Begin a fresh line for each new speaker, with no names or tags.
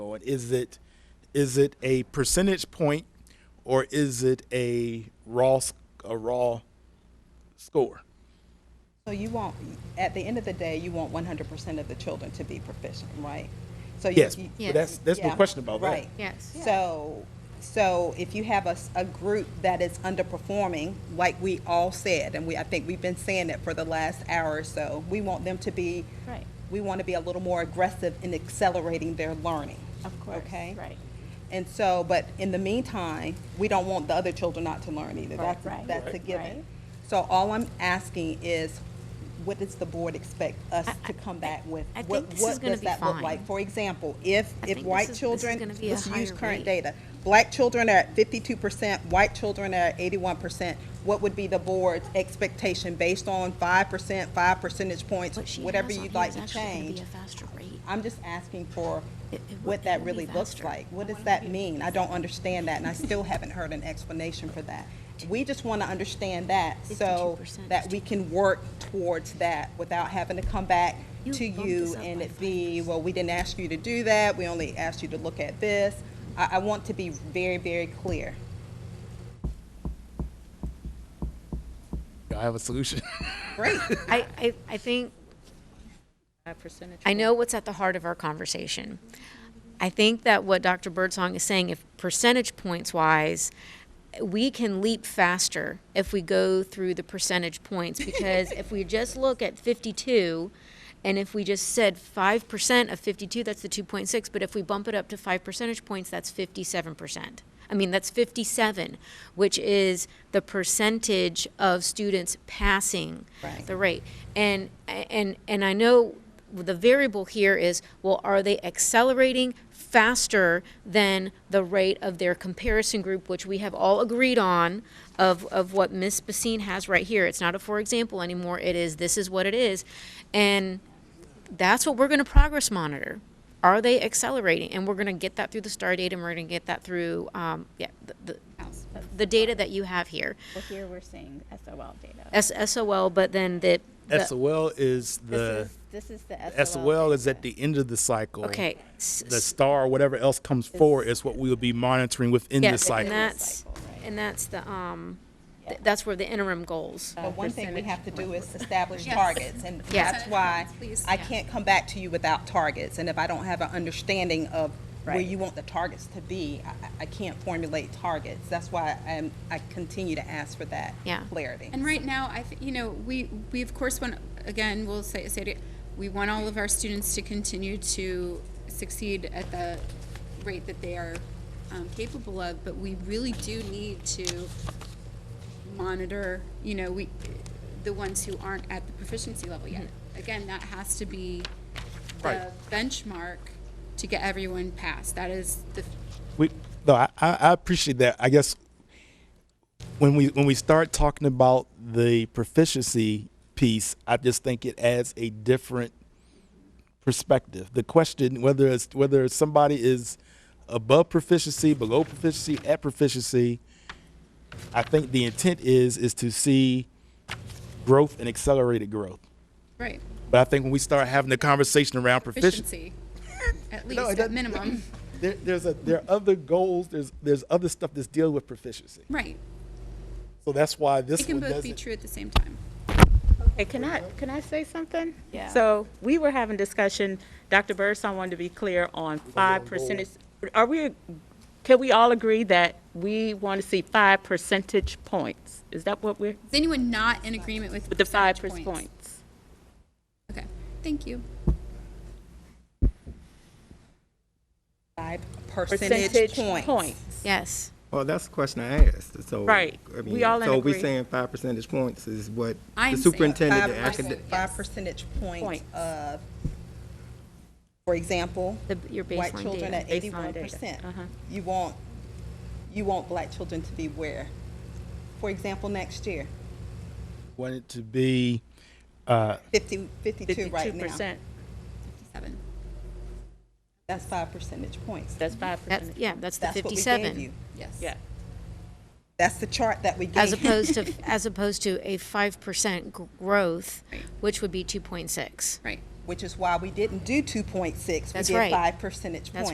going? Is it is it a percentage point or is it a raw s- a raw score?
So you want, at the end of the day, you want one hundred percent of the children to be proficient, right? So you-
Yes,
you-
but
Yes.
that's that's no
yeah,
question about that.
Right.
Yes.
So, so if you have a, s- a group that is underperforming, like we all said, and we, I think we've been saying it for the last hour or so, we want them to be,
Right,
we want to be a little more aggressive in accelerating their learning.
of course.
Okay?
Right.
And so, but in the meantime, we don't want the other children not to learn either.
Right,
That's, a-
right,
that's a
right.
given.
right.
So all I'm asking is, what does the board expect us to come back with?
I
What-
think this
what
is gonna
does
be
that look like?
fine.
For example, if,
I think
if
this is-
white
this is
children,
gonna be a
let's use
higher
current
rate.
data. Black children are at fifty-two percent, white children are at eighty-one percent. What would be the board's expectation based on five percent, five percentage
What
points,
she
whatever
has on
you'd
here
like
is
to
actually gonna be
change?
a faster rate.
I'm just asking for
It- it would-
what
it
that
would be
really looks
faster.
like. What does that mean? I don't understand that, and I still haven't heard an explanation for that. We just want to understand that so
52%
that
is
we can work towards that without having to come back
You
to
bumped
you
us up
and
by
it be, well, we didn't ask you to do that, we only asked you to look at this. I, I want to be very, very clear.
I have a solution.
Great.
I, I, I think I know what's at the heart of our conversation. I think that what Dr. Birdsong is saying, if percentage points wise, we can leap faster if we go through the percentage points because if we just look at 52, and if we just said 5% of 52, that's the 2.6, but if we bump it up to 5 percentage points, that's 57%. I mean, that's 57, which is the percentage of students passing
Right.
the rate. And and and I know the variable here is well, are they accelerating faster than the rate of their comparison group, which we have all agreed on of of what Miss Basine has right here. It's not a for example anymore. It is this is what it is, and that's what we're going to progress monitor. Are they accelerating? And we're going to get that through the star data, and we're going to get that through um, yeah the,
house.
the the data that you have here,
Well, here we're seeing SOL data.
S- SOL, but then the, the
SOL is the
This is, this is the SOL.
SOL is
data.
at the end of the cycle.
okay. s-
The star, whatever else comes forward, is what we will be monitoring within the
Yes,
cycle.
and that's,
Cycle, right.
and that's the, um, th- that's where the interim goals.
But one thing we have to do is establish targets, and
Yeah.
that's why
Please.
I can't come back to you without targets. And if I don't have an understanding of where
Right.
you want the targets to be, I- I, I can't formulate targets. That's why I'm, I continue to ask for that
Yeah.
clarity.
And right now, I, th- you know, we, we of course want, again, we'll say, say it, we want all of our students to continue to succeed at the rate that they are um, capable of, but we really do need to monitor, you know, we, the ones who aren't at the proficiency level yet. Again, that has to be the benchmark to get everyone past. That is the,
We, no, I, I I appreciate that. I guess when we when we start talking about the proficiency piece, I just think it adds a different perspective. The question whether it's whether somebody is above proficiency, below proficiency, at proficiency, I think the intent is is to see growth and accelerated growth.
right,
But I think when we start having the conversation around proficiency,
efficiency, at
No, it
least, at
doesn't-
minimum.
there, there's a there are other goals. There's there's other stuff that's dealing with proficiency.
Right.
So that's why this
It can
one
both be
doesn't.
true at the same time.
Hey, can I, can I say something? Yeah. So we were having discussion, Dr. Birdsong wanted to be clear on five percentage. Are we, can we all agree that we want to see five percentage points? Is that what we're,
Is anyone not in agreement with
with the five
percentage
percentage points?
Okay, thank you.
Five percentage points.
Yes,
Well, that's the question I asked, so.
Right.
I
We
mean,
all in
So we're
agree.
saying five percentage points is what
I'm
the
saying
superintendent, the
Five perc-
academic.
Five percentage points
Points.
of, for example,
the, your
white
baseline
children
data.
at eighty-one
Baseline data.
percent.
Uh-huh.
You want, you want black children to be where? For example, next year,
Want it to be
fifty, fifty-two right
Fifty-two
now.
percent,
Seven.
That's five percentage points.
that's five
That's,
percent.
yeah, that's the
That's what we gave
fifty-seven.
you.
Yes.
Yeah.
That's the chart that we gave.
As
you.
opposed to, as opposed to a five percent growth, which would be two point six.
Right.
Which is why we didn't do two point six.
That's
We did
right.
five percentage points.
That's